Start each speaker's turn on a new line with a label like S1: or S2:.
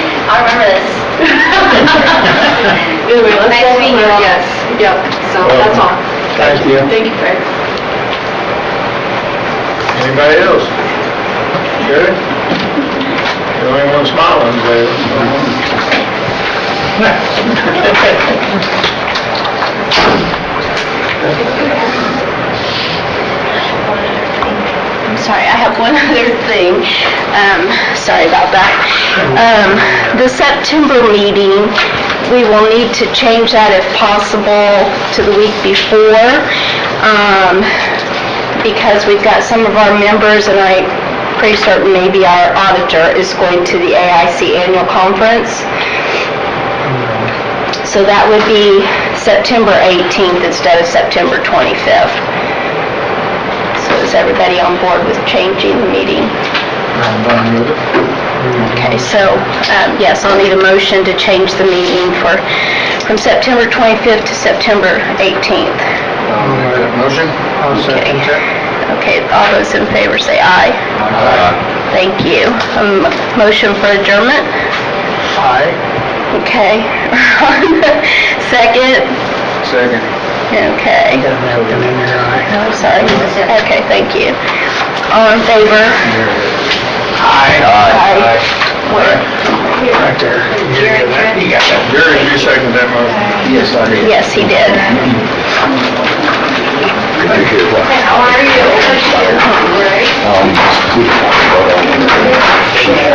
S1: Anyway, let's
S2: Nice
S1: go
S2: meeting you
S1: around.
S2: all.
S1: Yes, yep, so that's all.
S3: Thank you.
S1: Thank you, Craig.
S3: Anybody else? Good? The only one smiling today.
S2: I'm sorry, I have one other thing. Um, sorry about that. Um, the September meeting, we will need to change that if possible to the week before, um, because we've got some of our members, and I pretty certain maybe our auditor is going to the AIC annual conference. So that would be September 18th instead of September 25th. So is everybody on board with changing the meeting?
S3: I'm done with it.
S2: Okay, so, um, yes, I'll need a motion to change the meeting for, from September 25th to September 18th.
S3: I'll make that motion. I'll
S2: second
S3: that.
S2: Okay, all those in favor say aye.
S3: Aye.
S2: Thank you. Um, Motion for adjournment?
S3: Aye.
S2: Okay. Second?
S3: Second.
S2: Okay.
S3: Aye.
S2: No, I'm sorry. Okay, thank you. All in favor?
S3: Aye. Aye. Right there. You got that? You got that. Jerry, you second that motion? Yes, I did.
S2: Yes, he did.
S3: Thank you.
S2: How are you?
S3: Um,